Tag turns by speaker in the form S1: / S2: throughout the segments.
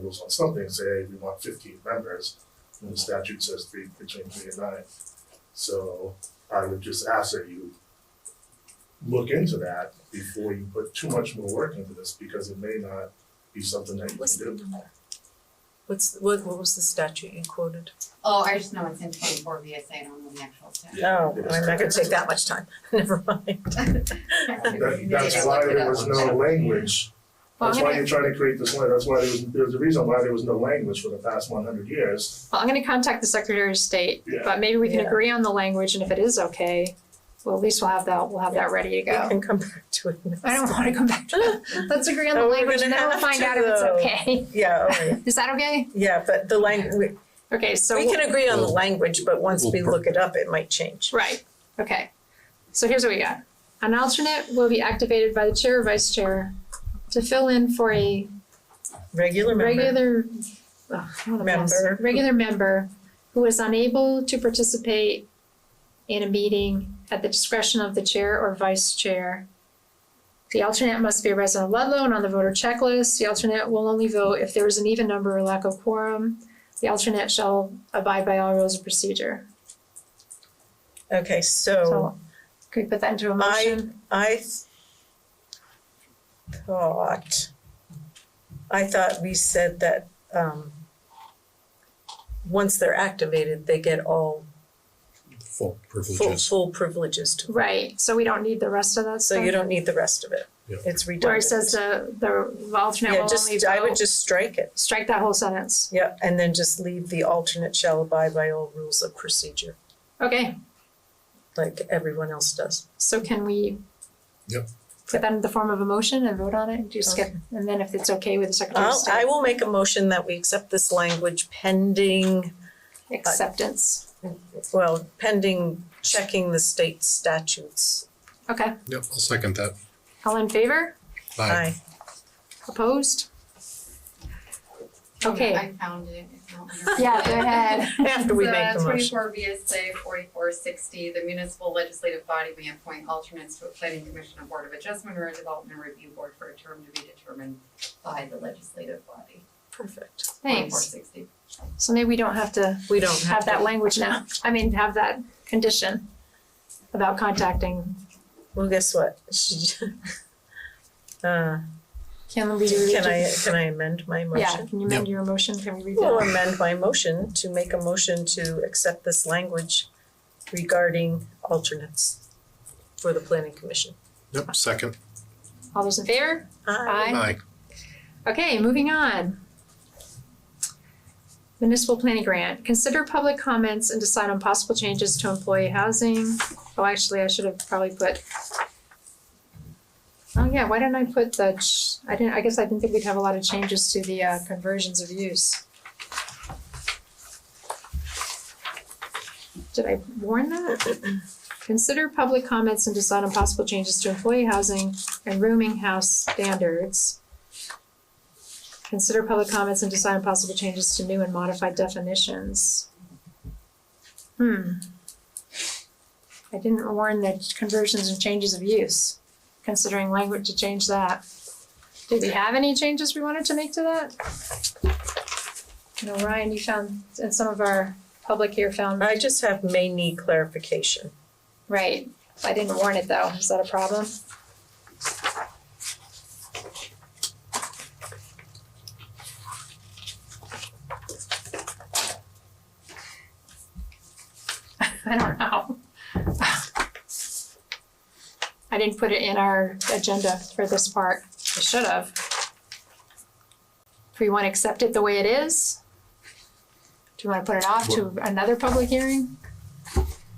S1: rules on something, say, hey, we want fifteen members, and the statute says three, between three and nine. So I would just ask that you look into that before you put too much more work into this, because it may not be something that you
S2: What's the
S1: can do.
S2: number? What's, what, what was the statute you quoted?
S3: Oh, I just know it's in twenty-four VSA, I don't know the actual statute.
S2: Oh,
S1: It is
S2: I'm not gonna take that much time, never mind.
S1: That, that's why there was no language.
S3: Well,
S1: That's
S3: I'm
S1: why
S3: gonna,
S1: you're trying to create this, lan- that's why there was, there's a reason why there was no language for the past one hundred years.
S4: Well, I'm gonna contact the Secretary of State,
S1: Yeah.
S4: but maybe we can
S2: Yeah.
S4: agree on the language and if it is okay, well, at least we'll have that, we'll have that ready to
S2: We
S4: go.
S2: can come back to it next.
S4: I don't wanna come back to that. Let's agree on the
S2: Oh, we're
S4: language and
S2: gonna have
S4: then we'll find
S2: to,
S4: out if it's
S2: though.
S4: okay.
S2: Yeah, all right,
S4: Is that okay?
S2: yeah, but the language,
S4: Okay, so.
S2: we can agree on the language, but once
S5: We'll
S2: we
S5: per-
S2: look it up, it might change.
S4: Right, okay. So here's what we got. An alternate will be activated by the chair or vice chair to fill in for a
S2: Regular member,
S4: regular, ugh, what a mess.
S2: Member.
S4: Regular member who is unable to participate in a meeting at the discretion of the chair or vice chair. The alternate must be a resident of Ludlow and on the voter checklist. The alternate will only vote if there is an even number or lack of quorum. The alternate shall abide by all rules of procedure.
S2: okay, so
S4: So, could we put that into a
S2: I-
S4: motion?
S2: I th- thought, I thought we said that, um, once they're activated, they get all
S5: full
S2: full,
S5: privileges.
S2: full privileges to
S4: Right, so we don't need the rest of that stuff?
S2: So you don't need the rest of it.
S5: Yeah.
S2: It's redundant.
S4: Where it says the, the alternate
S2: Yeah,
S4: will only
S2: just, I would
S4: vote,
S2: just strike it.
S4: strike that whole sentence.
S2: Yeah, and then just leave the alternate shall abide by all rules of procedure,
S4: Okay,
S2: like everyone else does.
S4: so can we?
S5: Yep.
S4: Put that in the form of a motion and vote on it, and do skip, and then if it's okay with the Secretary of
S2: I'll, I
S4: State,
S2: will make a motion that we accept this language pending,
S4: acceptance,
S2: well, pending checking the state statutes.
S4: okay,
S5: Yep, I'll second that.
S4: all in favor,
S5: Aye.
S4: opposed? Okay.
S3: I found it, it's not.
S4: Yeah, go ahead.
S2: After we make the
S3: So
S2: motion.
S3: twenty-four VSA forty-four sixty, the municipal legislative body may appoint alternates to a planning commission, a board of adjustment, or a development review board for a term to be determined by the legislative body.
S2: Perfect.
S3: Forty-four
S4: Thanks,
S3: sixty.
S4: so maybe we don't have to
S2: We don't have
S4: have that
S2: to,
S4: language now, I mean, have that condition about contacting,
S2: well, guess what? Uh,
S4: can we do?
S2: can I, can I amend my motion?
S4: Yeah, can you amend your motion, can we read that?
S2: Will amend my motion to make a motion to accept this language regarding alternates for the planning commission.
S5: Yep, second.
S4: All those in favor?
S2: I
S5: Aye.
S4: Okay, moving on. Municipal planning grant, consider public comments and decide on possible changes to employee housing. Oh, actually, I should have probably put. Oh, yeah, why didn't I put the, ch- I didn't, I guess I didn't think we'd have a lot of changes to the uh conversions of use. Did I warn that? Consider public comments and decide on possible changes to employee housing and rooming house standards. Consider public comments and decide on possible changes to new and modified definitions. Hmm. I didn't warn that conversions and changes of use, considering language to change that. Did we have any changes we wanted to make to that? You know, Ryan, you found, and some of our public here found,
S2: I just have may need clarification.
S4: right, I didn't warn it though, is that a problem? I don't know. I didn't put it in our agenda for this part, I should have. Do we wanna accept it the way it is? Do we wanna put it off to another public hearing?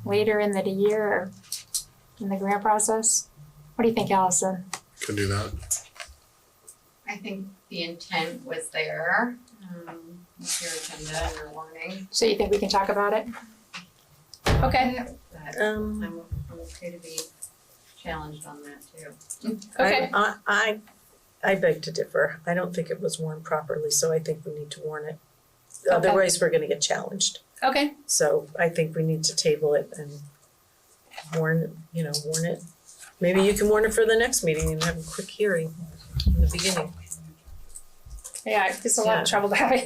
S4: Later in the year or in the grant process? What do you think, Allison?
S5: Can do that.
S3: I think the intent was there, um, with your agenda and your warning.
S4: So you think we can talk about it? Okay,
S3: But
S2: Um,
S3: I'm, I'm okay to be challenged on that too.
S4: okay,
S2: I, I, I beg to differ. I don't think it was warned properly, so I think we need to warn it. Otherwise, we're gonna get challenged.
S4: okay,
S2: So I think we need to table it and warn, you know, warn it. Maybe you can warn it for the next meeting and have a quick hearing in the beginning.
S4: Yeah, it's a lot of trouble to have a